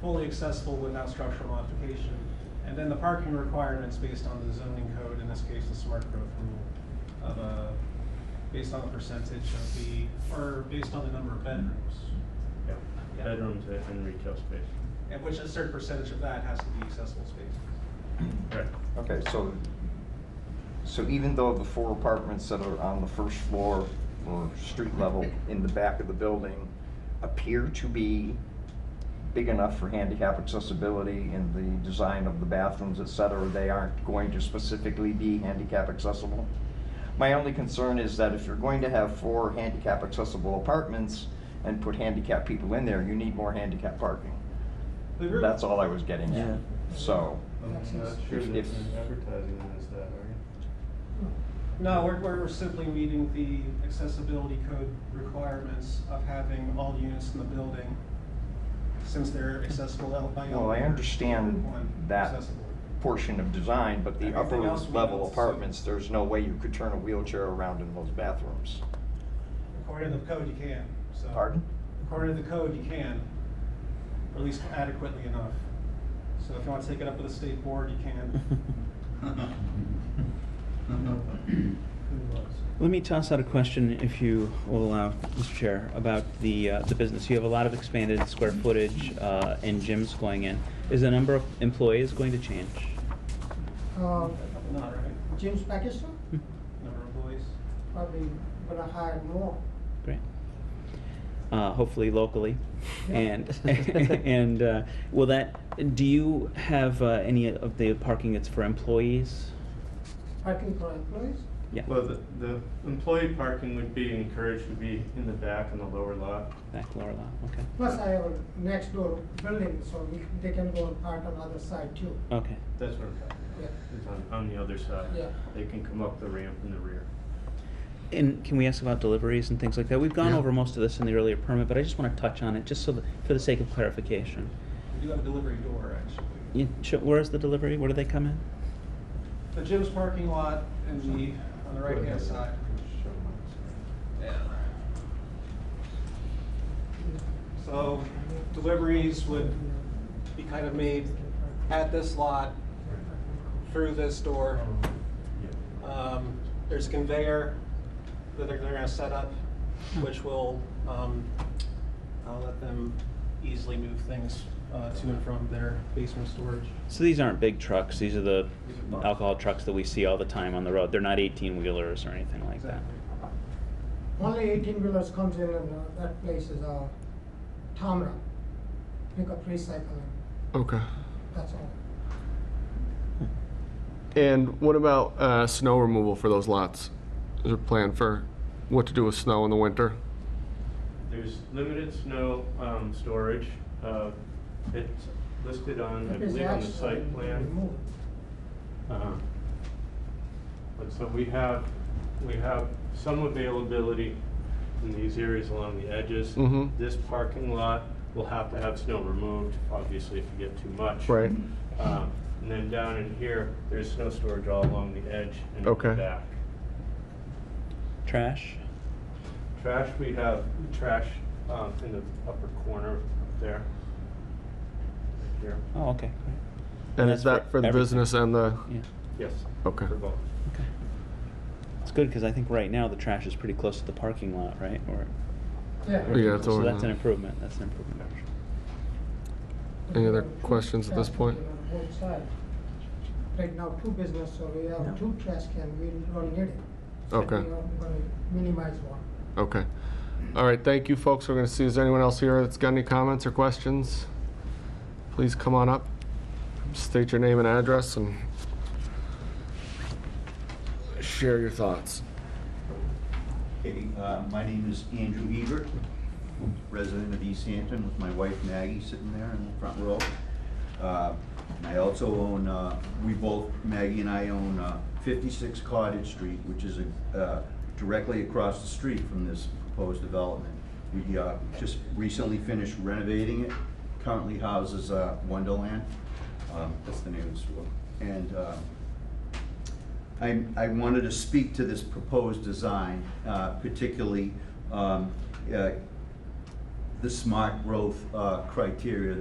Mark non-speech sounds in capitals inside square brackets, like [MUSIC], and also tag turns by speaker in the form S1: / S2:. S1: fully accessible without structural modification. And then the parking requirements based on the zoning code, in this case, the smart growth rule of a, based on the percentage of the, or based on the number of bedrooms.
S2: Yeah,
S1: Yeah.
S2: bedrooms and retail space.
S1: And which a certain percentage of that has to be accessible spaces.
S2: Right.
S3: Okay, so, so even though the four apartments that are on the first floor or street level in the back of the building appear to be big enough for handicap accessibility in the design of the bathrooms, et cetera, they aren't going to specifically be handicap accessible? My only concern is that if you're going to have four handicap accessible apartments and put handicap people in there, you need more handicap parking.
S1: We agree.
S3: That's all I was getting
S4: Yeah.
S3: at, so.
S2: I'm not sure
S3: If-
S2: that
S3: if-
S2: you're advertising it as that, are you?
S1: No, we're, we're we're simply meeting the accessibility code requirements of having all units in the building, since they're accessible ele- by elevator.
S3: Well, I understand
S1: one
S3: that
S1: accessible.
S3: portion of design, but the upper
S1: Everything else we
S3: level
S1: don't see.
S3: apartments, there's no way you could turn a wheelchair around in those bathrooms.
S1: According to the code, you can, so.
S3: Pardon?
S1: According to the code, you can, or at least adequately enough. So if you want to take it up with the state board, you
S4: [LAUGHS]
S1: can.
S4: [LAUGHS] Let me toss out a question, if you will allow, Mr. Chair, about the, uh, the business. You have a lot of expanded square footage uh, and gyms going in. Is the number of employees going to change?
S5: Uh,
S1: Not right,
S5: James Pakistan,
S4: Hmm,
S1: number of employees.
S5: probably gonna hire more.
S4: Great. Uh, Hopefully locally.
S5: Yeah.
S4: And, [LAUGHS] and uh, will that, do you have uh, any of the parking that's for employees?
S5: Parking for employees,
S4: Yeah.
S2: [LAUGHS] Well, the, the employee parking would be encouraged to be in the back in the lower lot.
S4: Back lower lot, okay.
S5: plus I have a next door building, so we, they can go and park on other side too.
S4: Okay,
S2: That's what I'm talking
S5: Yeah,
S2: about, is on, on the other side.
S5: Yeah.
S2: They can come up the ramp in the rear.
S4: And can we ask about deliveries and things like that? We've gone over most of this in the earlier permit, but I just want to touch on it, just so that, for the sake of clarification.
S1: We do have a delivery door, actually.
S4: You, sh- where's the delivery? Where do they come in?
S1: The gym's parking lot in the, on the right-hand side. Yeah. So deliveries would be kind of made at this lot, through this door. Um, There's a conveyor that they're, they're gonna set up, which will, um, I'll let them easily move things uh, to and from their basement storage.
S4: So these aren't big trucks. These are the
S1: These are boxes.
S4: alcohol trucks that we see all the time on the road. They're not 18 wheelers or anything like that.
S1: Exactly.
S5: only eighteen wheelers comes in and uh, that place is, uh, Tamra. Pick up recycling,
S6: Okay.
S5: that's all.
S6: And what about uh, snow removal for those lots? Is there a plan for what to do with snow in the winter?
S2: There's limited snow, um, storage, uh, it's listed on, I
S5: That is
S2: believe, on the
S5: actually
S2: site plan.
S5: removed.
S2: Um, But so we have, we have some availability in these areas along the edges.
S6: Mhm.
S2: This parking lot will have to have snow removed, obviously, if you get too much.
S6: Right.
S2: Um, And then down in here, there's snow storage all along the edge and in the
S6: Okay.
S2: back.
S4: Trash?
S2: Trash, we have trash um, in the upper corner up there. Right Here,
S4: Oh, okay.
S6: And
S4: that's
S6: is that
S4: for
S6: for the
S4: everything.
S6: business and the,
S4: Great. Yeah.
S2: yes.
S6: Okay.
S2: For both.
S4: Okay. It's good because I think right now the trash is pretty close to the parking lot, right? Or
S5: Yeah.
S6: Yeah, it's
S4: so
S6: over
S4: that's an
S6: there.
S4: improvement. That's an improvement.
S6: Any other questions at this point?
S5: Traffic on both sides. Right now, two business, so we
S4: No.
S5: have two trash can, we don't need it. So
S6: Okay.
S5: We are gonna minimize one.
S6: okay. All right, thank you, folks. We're going to see, is there anyone else here that's got any comments or questions? Please come on up, state your name and address, and share your thoughts.
S7: Okay, uh, my name is Andrew Ebert, resident of East Hampton, with my wife Maggie sitting there in the front row. Uh, and I also own, uh, we both, Maggie and I own uh, 56 Cottage Street, which is uh, directly across the street from this proposed development. We uh, just recently finished renovating it, currently houses uh, Wonderland, Um, that's the name of the store. And uh, I, I wanted to speak to this proposed design, uh, particularly um, uh, the smart growth uh, criteria